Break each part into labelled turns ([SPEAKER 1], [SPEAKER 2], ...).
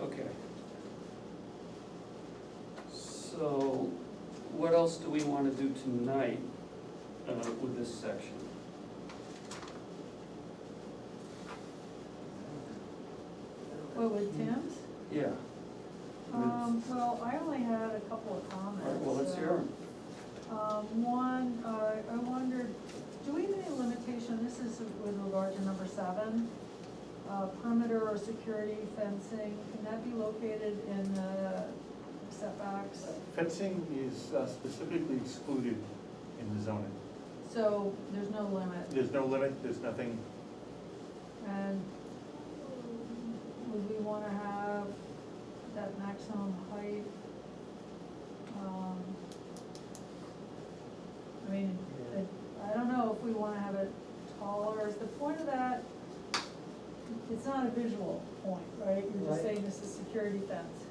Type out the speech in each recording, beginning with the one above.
[SPEAKER 1] Okay. So, what else do we wanna do tonight, uh, with this section?
[SPEAKER 2] Well, with Tim's?
[SPEAKER 1] Yeah,
[SPEAKER 2] Um, well, I only had a couple of
[SPEAKER 1] all
[SPEAKER 2] comments.
[SPEAKER 1] right, well, let's hear 'em.
[SPEAKER 2] Um, one, uh, I wondered, do we have any limitation, this is with regard to number seven, uh, perimeter or security fencing, can that be located in the setbacks?
[SPEAKER 3] Fencing is uh, specifically excluded in the zoning.
[SPEAKER 2] So there's no limit,
[SPEAKER 3] There's no limit, there's nothing,
[SPEAKER 2] and would we wanna have that maximum height? Um, I mean, it- I don't know if we wanna have it taller, is the point of that, it's not a visual point, right? You're just
[SPEAKER 4] Right.
[SPEAKER 2] saying this is security fence.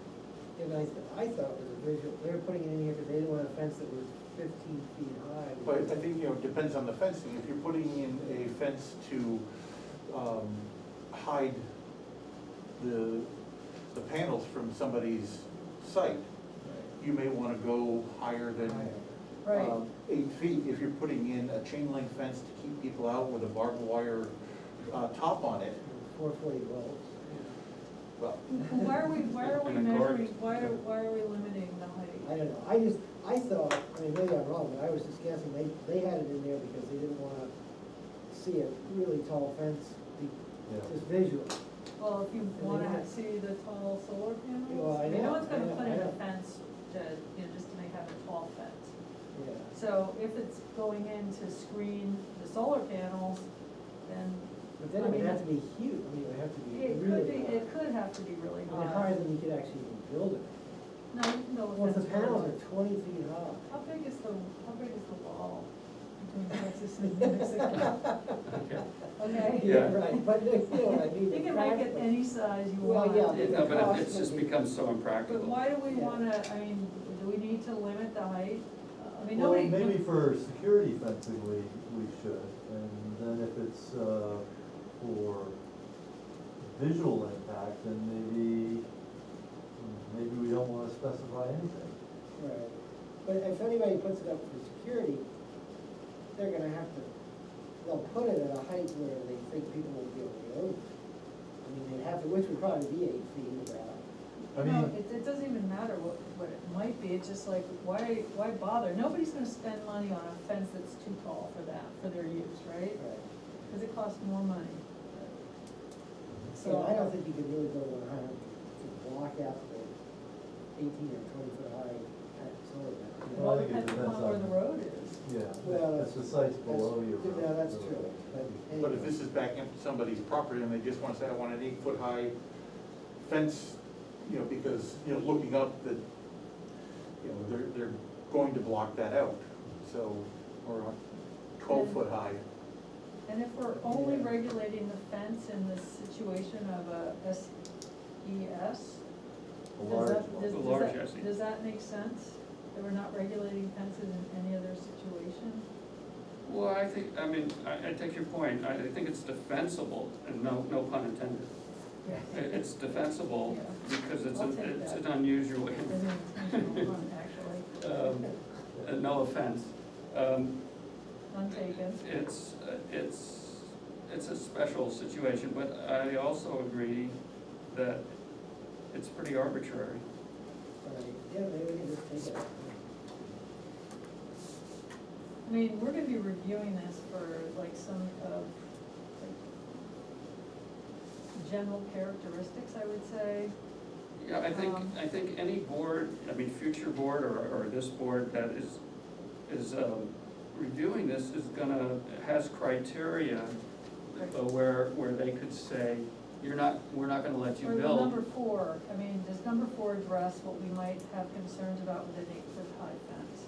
[SPEAKER 4] And I, I thought it was a visual, they were putting it in here because they didn't want a fence that was fifteen feet high.
[SPEAKER 3] but I think, you know, it depends on the fencing. If you're putting in a fence to um, hide the, the panels from somebody's site, you may want to go higher than
[SPEAKER 2] Right,
[SPEAKER 3] um, eight feet. If you're putting in a chain link fence to keep people out with a barbed wire uh, top on it,
[SPEAKER 4] Four forty volts.
[SPEAKER 3] well,
[SPEAKER 2] why are we, why are we
[SPEAKER 1] And a guard.
[SPEAKER 2] measuring, why are, why are we limiting the height?
[SPEAKER 4] I don't know, I just, I thought, I mean, maybe I'm wrong, but I was just guessing, they, they had it in there because they didn't wanna see a really tall fence, be-
[SPEAKER 3] Yeah.
[SPEAKER 4] just visual.
[SPEAKER 2] Well, if you
[SPEAKER 4] they
[SPEAKER 2] wanna ha-
[SPEAKER 4] want-
[SPEAKER 2] see the tall solar
[SPEAKER 4] Well,
[SPEAKER 2] panels,
[SPEAKER 4] I
[SPEAKER 2] I mean, no
[SPEAKER 4] know,
[SPEAKER 2] one's gonna
[SPEAKER 4] I know,
[SPEAKER 2] put
[SPEAKER 4] I
[SPEAKER 2] in a
[SPEAKER 4] know.
[SPEAKER 2] fence to, you know, just to make have a tall fence.
[SPEAKER 4] Yeah,
[SPEAKER 2] So if it's going in to screen the solar panels, then
[SPEAKER 4] but then it would have to be huge, I mean, it would have to be
[SPEAKER 2] it could
[SPEAKER 4] really
[SPEAKER 2] be,
[SPEAKER 4] high.
[SPEAKER 2] it could have to be really
[SPEAKER 4] I mean,
[SPEAKER 2] high.
[SPEAKER 4] higher than you could actually even build it.
[SPEAKER 2] No, no
[SPEAKER 4] Well, if
[SPEAKER 2] offense.
[SPEAKER 4] the panels
[SPEAKER 2] Roland.
[SPEAKER 4] are twenty feet high.
[SPEAKER 2] How big is the, how big is the wall between Texas and New Mexico?
[SPEAKER 1] Okay.
[SPEAKER 2] Okay,
[SPEAKER 1] Yeah.
[SPEAKER 4] Right, but, you know, what I mean.
[SPEAKER 2] you can make it
[SPEAKER 4] practically.
[SPEAKER 2] any size you
[SPEAKER 4] Well,
[SPEAKER 2] want.
[SPEAKER 4] yeah.
[SPEAKER 1] Yeah, but it's just become so impractical.
[SPEAKER 2] But why do we
[SPEAKER 4] Yeah.
[SPEAKER 2] wanna, I mean, do we need to limit the height? I mean,
[SPEAKER 5] Well,
[SPEAKER 2] nobody.
[SPEAKER 5] maybe for security fencing, we, we should, and then if it's, uh, for visual impact, then maybe, hmm, maybe we don't wanna specify anything.
[SPEAKER 4] Right, but if anybody puts it up for security, they're gonna have to, they'll put it at a height where they think people will be able to go. over. I mean, they'd have to, which would probably be eight feet about.
[SPEAKER 5] I
[SPEAKER 2] No,
[SPEAKER 5] mean,
[SPEAKER 2] it, it doesn't even matter what, what it might be, it's just like, why, why bother? Nobody's gonna spend money on a fence that's too tall for that, for their use, right?
[SPEAKER 4] Right.
[SPEAKER 2] Cause it costs more money.
[SPEAKER 4] So I don't think you could really go one hundred to block out the eighteen or twenty foot high kind of solar panel.
[SPEAKER 2] Well,
[SPEAKER 5] I
[SPEAKER 2] it
[SPEAKER 5] think it
[SPEAKER 2] depends upon
[SPEAKER 5] depends
[SPEAKER 2] where
[SPEAKER 5] on-
[SPEAKER 2] the road is.
[SPEAKER 4] Well,
[SPEAKER 5] yeah, it's the sites
[SPEAKER 4] that's-
[SPEAKER 5] below you. are-
[SPEAKER 4] yeah, that's true, but
[SPEAKER 3] But if this is back into somebody's property and they just wanna say, I want an eight-foot-high fence, you know, because, you know, looking up that, you know, they're, they're going to block that out, so, or a twelve-foot-high.
[SPEAKER 2] And if we're only
[SPEAKER 4] Yeah.
[SPEAKER 2] regulating the fence in the situation of a SES,
[SPEAKER 5] A
[SPEAKER 2] does
[SPEAKER 5] large
[SPEAKER 2] that,
[SPEAKER 5] one.
[SPEAKER 2] does,
[SPEAKER 1] A
[SPEAKER 2] does
[SPEAKER 1] large
[SPEAKER 2] that,
[SPEAKER 1] SES.
[SPEAKER 2] does that make sense? That we're not regulating fences in any other situation?
[SPEAKER 1] Well, I think, I mean, I, I take your point, I, I think it's defensible, and no, no pun intended. It- It's defensible because it's,
[SPEAKER 2] I'll
[SPEAKER 1] an-
[SPEAKER 2] take
[SPEAKER 1] it's
[SPEAKER 2] that.
[SPEAKER 1] an unusual,
[SPEAKER 2] An intentional one, actually,
[SPEAKER 1] um, uh, no offense. Um,
[SPEAKER 2] untaken.
[SPEAKER 1] It's, uh, it's, it's a special situation, but I also agree that it's pretty arbitrary.
[SPEAKER 4] Right, yeah, maybe we can just take it.
[SPEAKER 2] I mean, we're gonna be reviewing this for like some of, like, general characteristics, I would say.
[SPEAKER 1] Yeah, I think,
[SPEAKER 2] Um.
[SPEAKER 1] I think any board, I mean, future board or, or this board that is, is, um, reviewing this is gonna, has criteria
[SPEAKER 2] Right.
[SPEAKER 1] uh, where, where they could say, you're not, we're not gonna let you
[SPEAKER 2] Or the number
[SPEAKER 1] build.
[SPEAKER 2] four, I mean, does number four address what we might have concerns about with an eight-foot high fence?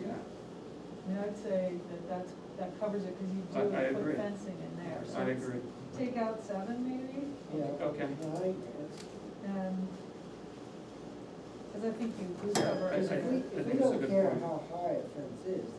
[SPEAKER 1] Yeah,
[SPEAKER 2] I mean, I'd say that that's, that covers it, cause you
[SPEAKER 1] I- I
[SPEAKER 2] do
[SPEAKER 1] agree.
[SPEAKER 2] put fencing in there, so.
[SPEAKER 1] I
[SPEAKER 2] it's-
[SPEAKER 1] agree.
[SPEAKER 2] Take out seven maybe,
[SPEAKER 4] Yeah.
[SPEAKER 1] Okay.
[SPEAKER 4] No, I think that's-
[SPEAKER 2] and, cause I think you do cover
[SPEAKER 1] I-
[SPEAKER 4] Because
[SPEAKER 1] I-
[SPEAKER 4] if
[SPEAKER 2] it.
[SPEAKER 4] we,
[SPEAKER 1] think
[SPEAKER 4] if we
[SPEAKER 1] it's a
[SPEAKER 4] don't
[SPEAKER 1] good
[SPEAKER 4] care
[SPEAKER 1] point.
[SPEAKER 4] how high a fence is,